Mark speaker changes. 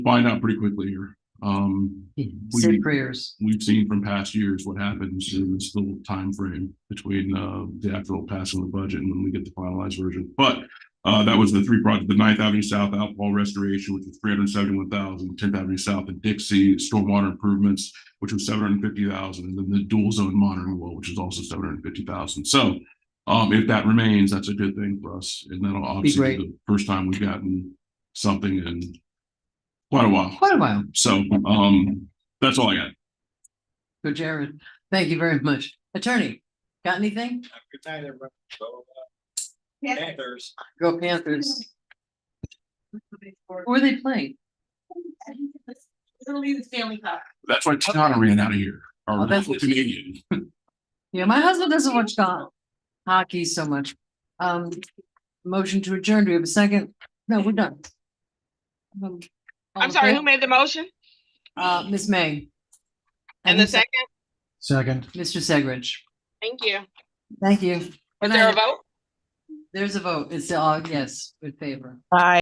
Speaker 1: find out pretty quickly here. Um,
Speaker 2: Say prayers.
Speaker 1: we've seen from past years what happens in this little time frame between uh the actual passing of the budget and when we get the finalized version. But uh that was the three projects, the Ninth Avenue South outfall restoration, which was three hundred and seventy-one thousand, Tenth Avenue South and Dixie stormwater improvements, which was seven hundred and fifty thousand, and then the dual zone monitoring wall, which is also seven hundred and fifty thousand. So um if that remains, that's a good thing for us. And that'll obviously be the first time we've gotten something in quite a while.
Speaker 2: Quite a while.
Speaker 1: So um that's all I got.
Speaker 2: Go Jared. Thank you very much. Attorney, got anything?
Speaker 3: Good night, everyone. Go, uh,
Speaker 4: Yeah.
Speaker 3: Panthers.
Speaker 2: Go Panthers. Who are they playing?
Speaker 4: Literally the Stanley Cup.
Speaker 1: That's why Tiana ran out of here.
Speaker 2: Oh,
Speaker 1: Our
Speaker 2: that's-
Speaker 1: Canadian.
Speaker 2: Yeah, my husband doesn't watch go- hockey so much. Um, motion to adjourn. Do we have a second? No, we're done. Um, all
Speaker 5: I'm
Speaker 2: in
Speaker 5: sorry,
Speaker 2: favor?
Speaker 5: who made the motion?
Speaker 2: Uh, Ms. May.
Speaker 5: And the second?
Speaker 3: Second.
Speaker 2: Mr. Segridge.
Speaker 5: Thank you.
Speaker 2: Thank you.
Speaker 5: Was there a
Speaker 2: night.
Speaker 5: vote?
Speaker 2: There's a vote. It's all uh, yes, with favor.
Speaker 5: Aye.